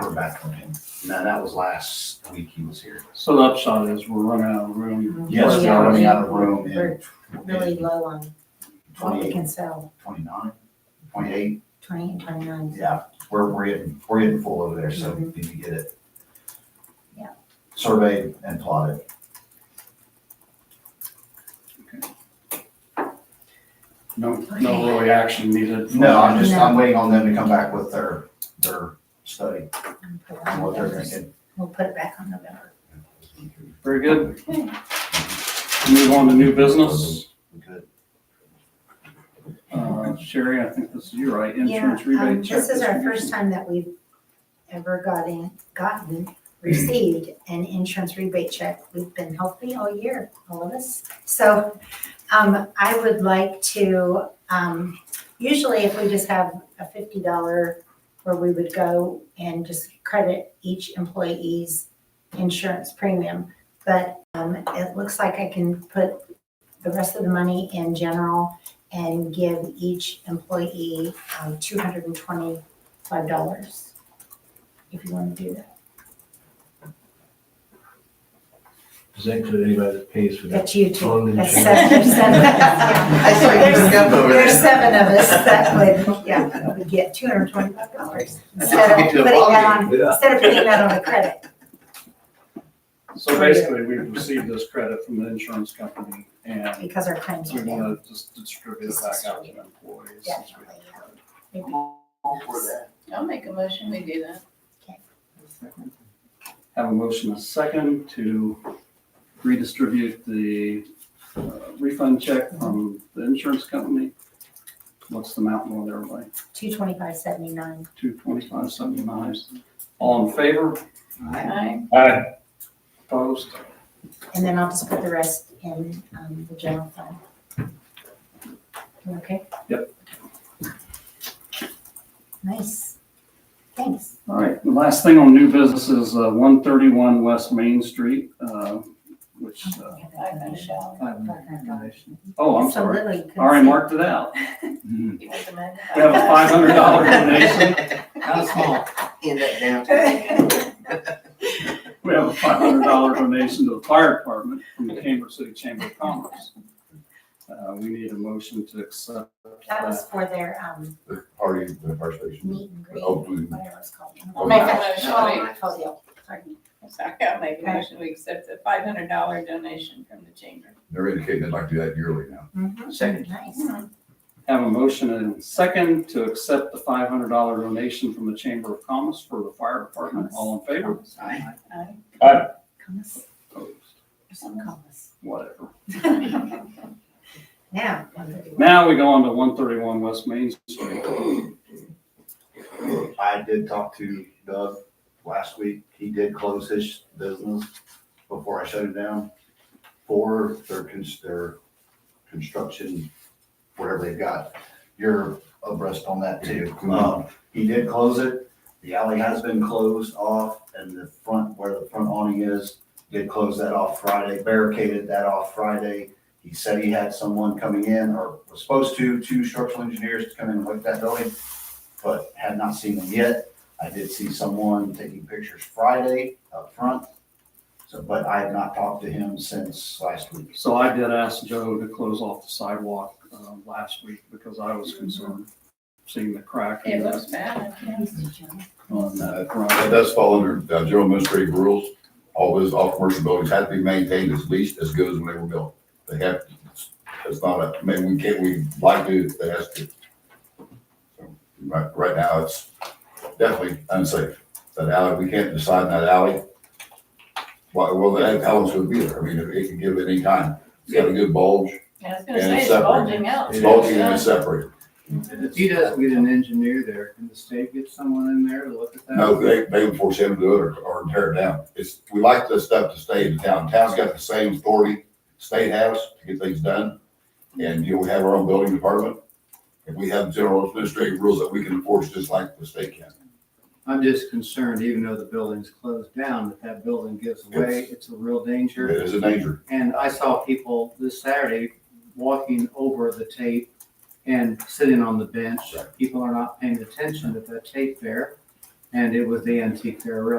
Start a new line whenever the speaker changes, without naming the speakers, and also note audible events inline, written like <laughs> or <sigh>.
Never back from him. No, that was last week he was here.
So the upshot is we're running out of room.
Yes, we
Yeah,
are running
we-
out of room in
we're really low on what we
28,
can sell,
29, 28.
twenty and twenty-nine.
Yeah, we're, we're getting, we're getting full over there, so we need to get it.
Yeah.
Surveyed and plotted.
No, no really action needed.
No, I'm just, I'm waiting on them to come back with their, their study
and put it
and
on
what they're
November.
thinking.
We'll put it back on November.
Very good. Move on to new business.
We could.
Uh, Sherry, I think this is you, right?
Yeah,
Insurance rebate
um,
check.
this is our
distribution.
first time that we've ever gotten, gotten, received an insurance rebate check. We've been healthy all year, all of us. So, um, I would like to, um, usually if we just have a fifty dollar where we would go and just credit each employee's insurance premium. But, um, it looks like I can put the rest of the money in general and give each employee um, two hundred and twenty-five dollars, if you want to do that.
Does that include anybody that pays for that?
That's you
Phone
two. That's
insurance.
seven, there's seven. yeah.
<laughs> I saw you look up over
There's
there.
seven of us that would, yeah, would get two hundred and twenty-five dollars instead
That's
of
what we do.
putting that on,
Yeah.
instead of putting that on the credit.
So basically, we've received this credit from the insurance company and
Because our claims
we
are down.
want to just distribute it back out to employees. since we have it.
I'll make a motion, we do that.
Have a motion and a second to redistribute the uh, refund check from the insurance company. What's the amount more there, like
Two twenty-five seventy-nine.
two twenty-five seventy-nine? All in favor?
Aye.
Aye. Opposed?
And then I'll just put the rest in um, the general fund. You Okay?
Yep.
Nice. Thanks.
All right, the last thing on new business is uh, one thirty-one West Main Street, uh, which, uh,
I finished out.
I have-
Donation.
oh, I'm
So
sorry.
literally you couldn't
Already
<laughs> see.
marked it out.
Mhm.
You did the math.
We have a five hundred
<laughs>
dollar donation. How small?
In that
We have a five hundred dollar donation to the fire department from the Cambridge City Chamber of Commerce. Uh, we need a motion to accept
That was
that.
for their um,
Already the first station.
meet and greet,
Oh, we-
whatever it's called.
I'll make a motion.
Oh, my fault, yeah. Sorry.
Sorry, I'll make a motion, we accept the five hundred dollar donation from the chamber.
They're indicating they'd like to do that yearly now.
Mhm.
Second.
Nice.
Have a motion and second to accept the five hundred dollar donation from the Chamber of Commerce for the fire department. All in favor?
Aye.
Aye.
Compass,
Opposed?
some compass.
Whatever.
Now, one thirty-one.
Now we go on to one thirty-one West Main Street.
I did talk to Doug last week. He did close his business before I shut it down for their, cons- their construction, whatever they've got. You're abreast on that too. Um, he did close it. The alley has been closed off and the front, where the front awning is, did close that off Friday, barricaded that off Friday. He said he had someone coming in or was supposed to, two structural engineers to come in and look at that building but have not seen them yet. I did see someone taking pictures Friday up front. So, but I have not talked to him since last week.
So I did ask Joe to close off the sidewalk, uh, last week because I was concerned seeing the crack
It
in
looks
that,
bad.
on that
That
front.
does fall under uh, general administrative rules. All those all commercial buildings have to be maintained at least as good as when they were built. They have, it's not a, I mean, we can't, we like to, it has to. So, Right, right now, it's definitely unsafe. That alley, we can't decide in that alley. Why, well, that alley should be there. I mean, it can give at any time. It's got a good bulge.
Yeah, I was gonna
And
say, it's
separate.
bulging out.
It's bulging and it's separated.
And if he doesn't get an engineer there, can the state get someone in there to look at that?
No, they, they would force him to do it or, or tear it down. It's, we like this stuff to stay in town. Town's got the same authority state has to get things done. And, you know, we have our own building department. And we have general administrative rules that we can enforce just like the state can.
I'm just concerned, even though the building's closed down, that that building gives away, it's a real danger.
It is a danger.
And I saw people this Saturday walking over the tape and sitting on the bench. People are not paying attention to that tape there. And it was the antique there, really.